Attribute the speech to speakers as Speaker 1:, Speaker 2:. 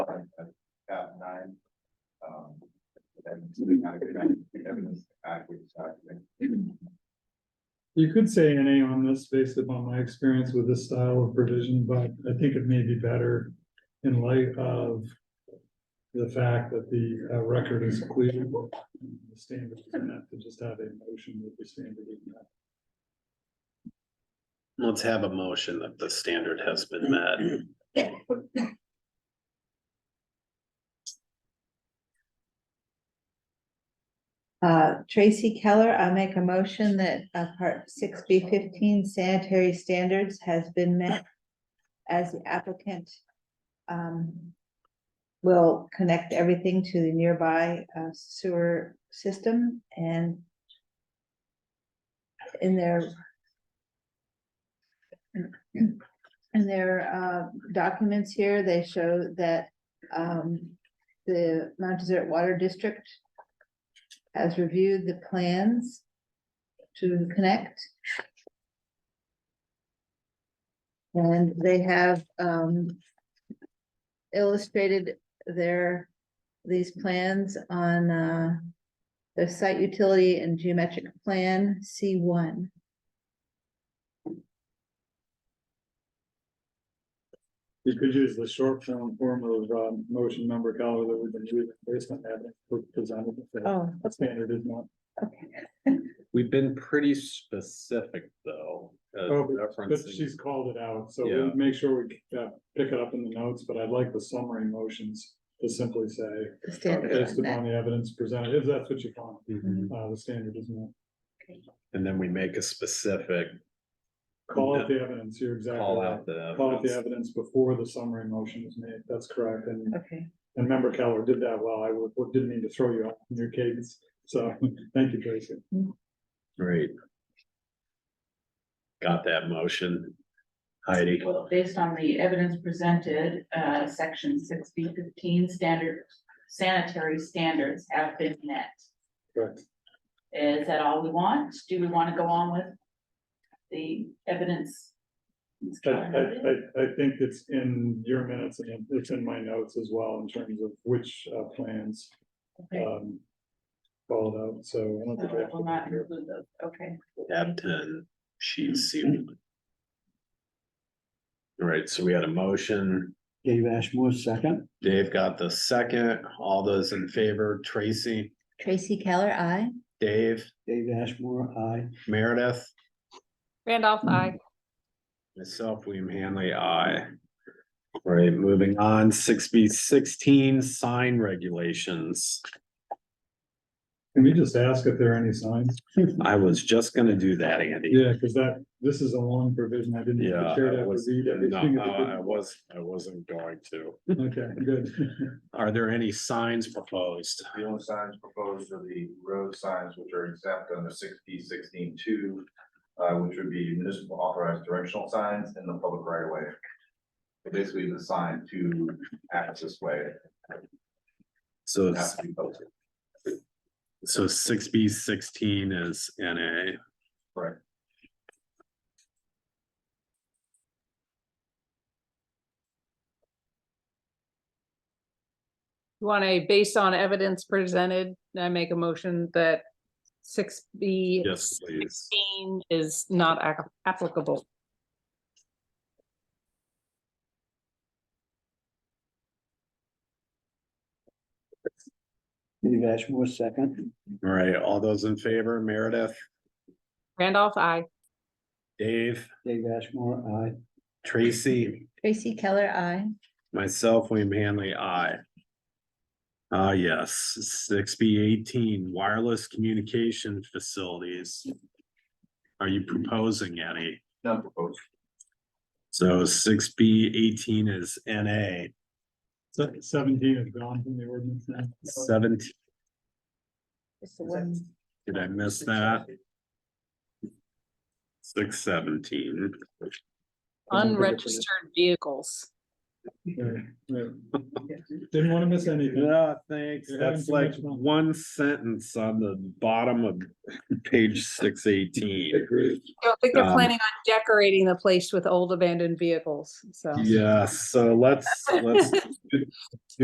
Speaker 1: Um,
Speaker 2: You could say NA on this based upon my experience with this style of provision, but I think it may be better in light of the fact that the uh, record is clear. and The standard is not to just have a motion with the standard. is met.
Speaker 3: Let's have a motion that the standard has been met.
Speaker 4: Uh, Tracy Keller, I make a motion that uh, part six B fifteen sanitary standards has been met. As the applicant. Um. Will connect everything to the nearby uh, sewer system and. In their. In their uh documents here, they show that um the Mount Desert Water District has reviewed the plans to connect. And they have um illustrated their, these plans on uh the site utility and geometric plan C one.
Speaker 2: You could use the short form form of um, motion number color that we've been using based on that presented.
Speaker 4: Oh,
Speaker 2: That standard is not.
Speaker 4: okay.
Speaker 3: We've been pretty specific, though. uh,
Speaker 2: Oh, but- but
Speaker 3: referencing-
Speaker 2: she's called it out, so
Speaker 3: Yeah.
Speaker 2: we'll make sure we uh, pick it up in the notes, but I'd like the summary motions to simply say
Speaker 4: The standard
Speaker 2: based
Speaker 4: on that.
Speaker 2: upon the evidence presented, if that's what you want,
Speaker 3: Mhm.
Speaker 2: uh, the standard is not.
Speaker 3: And then we make a specific
Speaker 2: Call out the evidence, you're exactly
Speaker 3: call
Speaker 2: right.
Speaker 3: out the.
Speaker 2: Call out the evidence before the summary motion is made, that's correct, and,
Speaker 4: Okay,
Speaker 2: and member Keller did that well, I would, didn't mean to throw you off in your cadence, so, thank you, Tracy.
Speaker 3: Great. Got that motion. Heidi,
Speaker 5: Well, based on the evidence presented, uh, section six B fifteen standard sanitary standards have been met.
Speaker 2: Correct.
Speaker 5: Is that all we want? Do we want to go on with the evidence?
Speaker 2: I, I, I, I think it's in your minutes and it's in my notes as well in terms of which, uh, plans,
Speaker 5: Okay,
Speaker 2: um, called out, so. I don't
Speaker 5: so
Speaker 2: think we have
Speaker 5: we'll not
Speaker 2: to-
Speaker 5: include those, okay.
Speaker 3: tab ten,
Speaker 2: Mm-hmm.
Speaker 3: sheet C. one. All right, so we had a motion.
Speaker 6: Dave Ashmore, second.
Speaker 3: Dave got the second. All those in favor, Tracy,
Speaker 4: Tracy Keller, I.
Speaker 3: Dave,
Speaker 6: Dave Ashmore, aye.
Speaker 3: Meredith,
Speaker 7: Randolph, I.
Speaker 3: myself, William Hanley, I. All right, moving on, six B sixteen, sign regulations.
Speaker 2: Can we just ask if there are any signs?
Speaker 3: I was just gonna do that, Andy.
Speaker 2: Yeah, because that, this is a long provision, I didn't. get
Speaker 3: Yeah,
Speaker 2: to share
Speaker 3: I
Speaker 2: that
Speaker 3: was,
Speaker 2: with you.
Speaker 3: no, I was, I wasn't going to.
Speaker 2: Okay, good.
Speaker 3: Are there any signs proposed?
Speaker 1: The only signs proposed are the road signs which are exempt under sixty sixteen two, uh, which would be municipal authorized directional signs in the public right of way. Basically, the sign to access way
Speaker 3: So,
Speaker 1: has to be posted.
Speaker 3: so six B sixteen is NA.
Speaker 1: Correct.
Speaker 3: Mm-hmm.
Speaker 7: You Want a based on evidence presented, I make a motion that six B
Speaker 3: Yes, please.
Speaker 7: sixteen is not ac- applicable.
Speaker 6: Dave Ashmore, second.
Speaker 3: All right, all those in favor, Meredith,
Speaker 7: Randolph, I.
Speaker 3: Dave,
Speaker 6: Dave Ashmore, aye.
Speaker 3: Tracy,
Speaker 4: Tracy Keller, I.
Speaker 3: myself, William Hanley, I. Uh, yes, six B eighteen wireless communication facilities. Are you proposing any?
Speaker 1: None proposed.
Speaker 3: So six B eighteen is NA
Speaker 2: So Seventeen is gone from the ordinance now.
Speaker 3: seventeen.
Speaker 4: It's the one.
Speaker 3: Did I miss that? Six seventeen.
Speaker 7: Unregistered vehicles.
Speaker 2: Right, right. Didn't want to miss anything.
Speaker 3: Yeah, thanks.
Speaker 2: You're having
Speaker 3: That's
Speaker 2: too
Speaker 3: like
Speaker 2: much fun.
Speaker 3: one sentence on the bottom of page six eighteen.
Speaker 2: Agreed.
Speaker 7: I don't think they're
Speaker 3: Um,
Speaker 7: planning on decorating the place with old abandoned vehicles, so.
Speaker 3: Yeah, so let's, let's